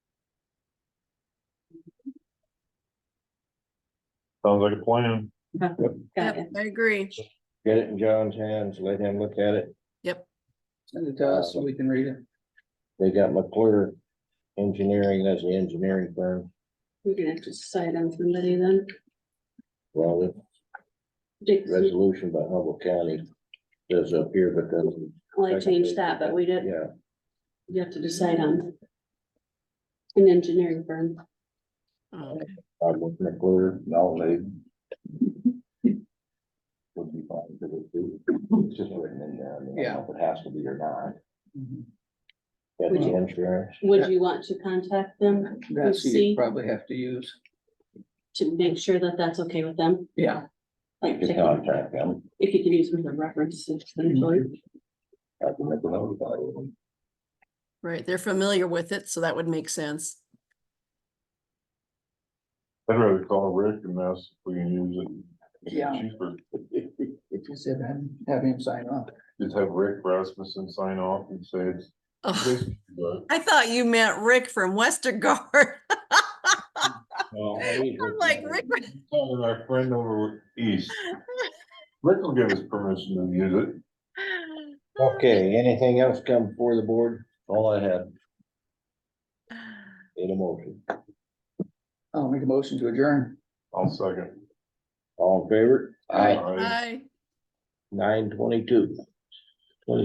Sounds like a plan. Got Yep, it. I agree. Get it in John's hands, let him look at it. Send it to us so we can read it. They got McClure Engineering, that's the engineering firm. We're gonna have to decide on somebody then. Well, Dick, the resolution by Humboldt County says up here, but then, well, I changed that, but we did, yeah, you have to decide on. An engineering firm. Okay. I'm with McClure. No, they. Would be fine, because it's- it's just written in there, I mean, I don't know if it has to be or not. Got the insurance. Would you want to contact them That's who see. you probably have to use. to make sure that that's okay with them? Yeah. Like, To contact them, if you can use them as a reference. essentially. I can make a note about it. Right, they're familiar with it, so that would make sense. I'd rather call Rick and ask if we can use it. Yeah. Cheaper. Just have him, have him sign off. Just have Rick Rasmussen sign off and say it's. Oh, this, but- I thought you meant Rick from Westergard. I'm like, Rick, Calling our friend over east. Rick will give us permission to use it. Okay, anything else come before the board? All I had, in a motion. I'll make a motion to adjourn. I'll second. All in favor? Aye. Aye. Hi. Nine twenty-two.